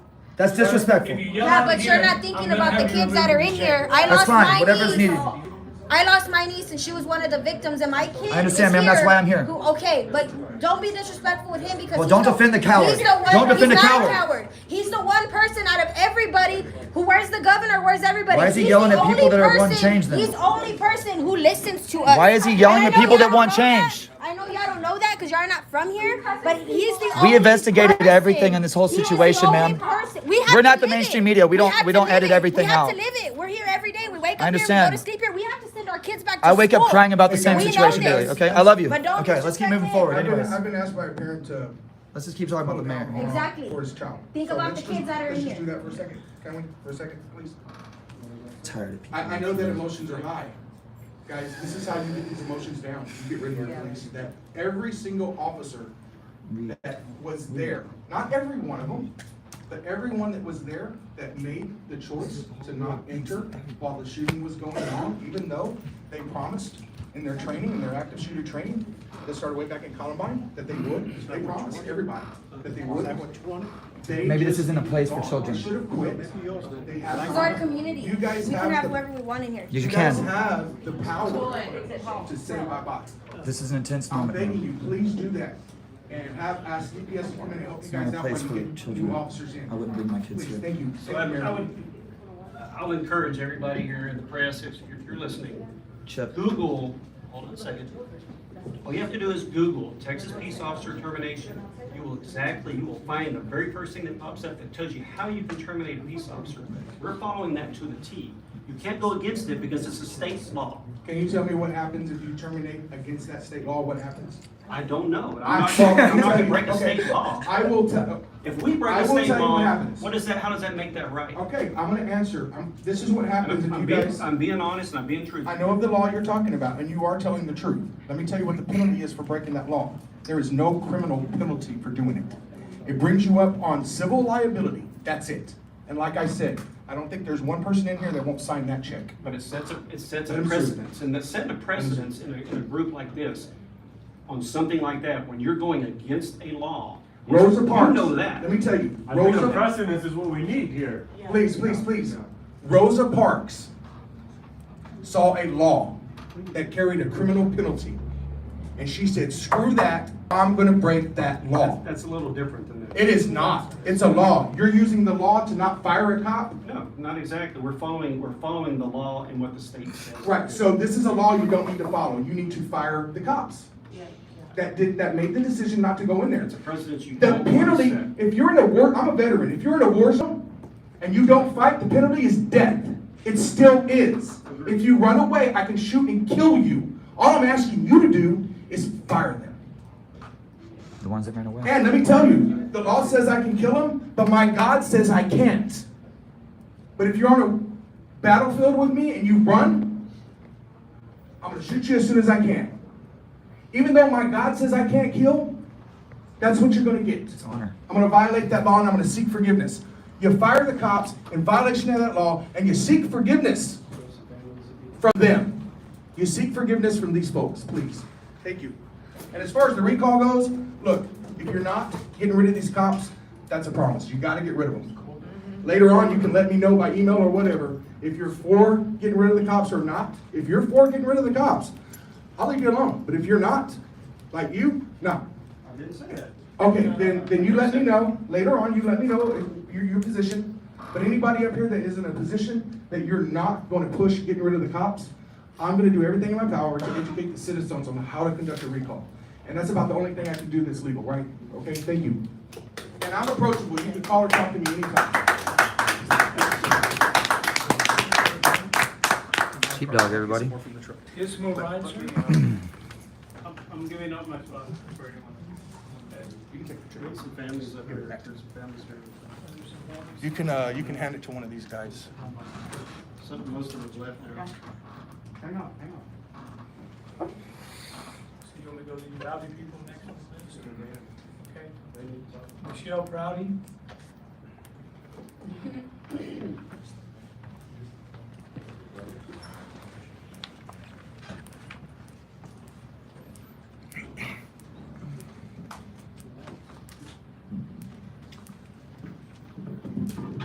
That's disrespectful. If you yell Yeah, out but here, you're not I'm thinking gonna about the have you kids removed that are from in jail. here. I That's lost fine, my whatever's niece. needed. I lost my niece and she was one of the victims and my kid I understand, is ma'am, that's why I'm here. who- Okay, but don't be disrespectful with him because Well, he's don't offend the coward. He's the one, Don't offend he's the not a coward. coward. He's the one person out of everybody who where's the governor, where's everybody? Why is he He's yelling the at people only that are wanting person- change then? He's the only person who listens to us. Why is he yelling And I at know people that y'all want don't know change? that. I know y'all don't know that because y'all are not from here, but he's the We only investigated person. everything in this whole He is the situation, only ma'am. person. We have We're to not the live it. mainstream media. We don't- have we to don't live edit it. everything We have to out. live it. We're here every day. We wake up I here. We understand. go to sleep here. We have to send our kids back to I wake up school. crying about the same We know situation daily, this. okay? I love you. But don't Okay, let's keep moving disrespect forward it. I've been, anyways. I've been asked by a parent to. Let's just keep talking about the mayor. Hold on, Exactly. For his child. Think So about let's the just- kids that are in Let's just here. do that for a second, can we, for a second, please? Tired of people. I, I know that emotions are high. Guys, this is how you get these emotions down, you get rid of your police, that every single officer that was there, not every one of them, but everyone that was there that made the choice to not enter while the shooting was going on, even though they promised in their training, in their active shooter training, that started way back in Columbine, that they would, they promised everybody that they would. They Maybe this just isn't a place for gone. They children. should have quit. They had- It's our community. You guys we have can have the- whoever we want in here. You you guys can. have the power to say bye-bye. This is an intense I'm moment. begging man. you, please do that. And have, ask DPS to come in and help you It's not guys a out when place for you get children. new officers in. I wouldn't bring my kids Please, here. thank you. So I would- I would, I'll encourage everybody here in the press, if, if you're listening, Chip, Google, hold on a second. All you have to do is Google Texas Peace Officer Termination. You will exactly, you will find the very first thing that pops up that tells you how you can terminate a peace officer. We're following that to the T. You can't go against it because it's a state's law. Can you tell me what happens if you terminate against that state law? What happens? I don't know. I'm I- not, I'm not gonna break a Okay. state law. I will tell, If we break I a will state tell you what law, happens. what is that, how does that make that right? okay, I'm gonna answer. I'm- This is what happens I'm if I'm you being, guys, I'm being honest and I'm being I truthful. know of the law you're talking about and you are telling the truth. Let me tell you what the penalty is for breaking that law. There is no criminal penalty for doing it. It brings you up on civil liability. That's it. And like I said, I don't think there's one person in here that won't sign that check. But it sets a, it sets a Let him shoot. precedence, and that setting a precedence in a, in a group like this, on something like that, when you're going against a law. you- Rosa Parks. You know that. Let me tell you, I think a Rosa, precedence is what we need here. please, please, please. Rosa Parks saw a law that carried a criminal penalty. And she said, screw that, I'm gonna break that law. That's a little different than that. It is not. It's a law. You're using the law to not fire a cop? No, not exactly. We're following, we're following the law and what the state says. Right, so this is a law you don't need to follow. You need to fire the cops. That did, that made the decision not to go in there. It's a precedence you The don't want to penalty, set. if you're in a war, I'm a veteran, if you're in a war zone and you don't fight, the penalty is death. It still is. If you run away, I can shoot and kill you. All I'm asking you to do is fire them. the ones that ran away. And let me tell you, the law says I can kill them, but my God says I can't. But if you're on a battlefield with me and you run, I'm gonna shoot you as soon as I can. Even though my God says I can't kill, that's what you're gonna get. It's honor. I'm gonna violate that law and I'm gonna seek forgiveness. You fire the cops in violation of that law and you seek forgiveness from them. You seek forgiveness from these folks, please. Thank you. And as far as the recall goes, look, if you're not getting rid of these cops, that's a promise. You gotta get rid of them. Later on, you can let me know by email or whatever if you're for getting rid of the cops or not. If you're for getting rid of the cops, I'll leave you alone. But if you're not, like you, no. I didn't say that. Okay, then, then you let me know, later on, you let me know if your, your position. But anybody up here that is in a position that you're not gonna push getting rid of the cops, I'm gonna do everything in my power to educate the citizens on how to conduct a recall. And that's about the only thing I can do that's legal, right? Okay, thank you. And I'm approachable, you can call or talk to me anytime. Sheepdog, everybody. This move on, sir? I'm, I'm giving up my spot for anyone. You can take the There's some families up here, there's some families here. You can, uh, you can hand it to one of these guys. Some, most of them's left there. Hang on, hang on. So you wanna go to the Rowdy people next one, please? Okay. Michelle Rowdy?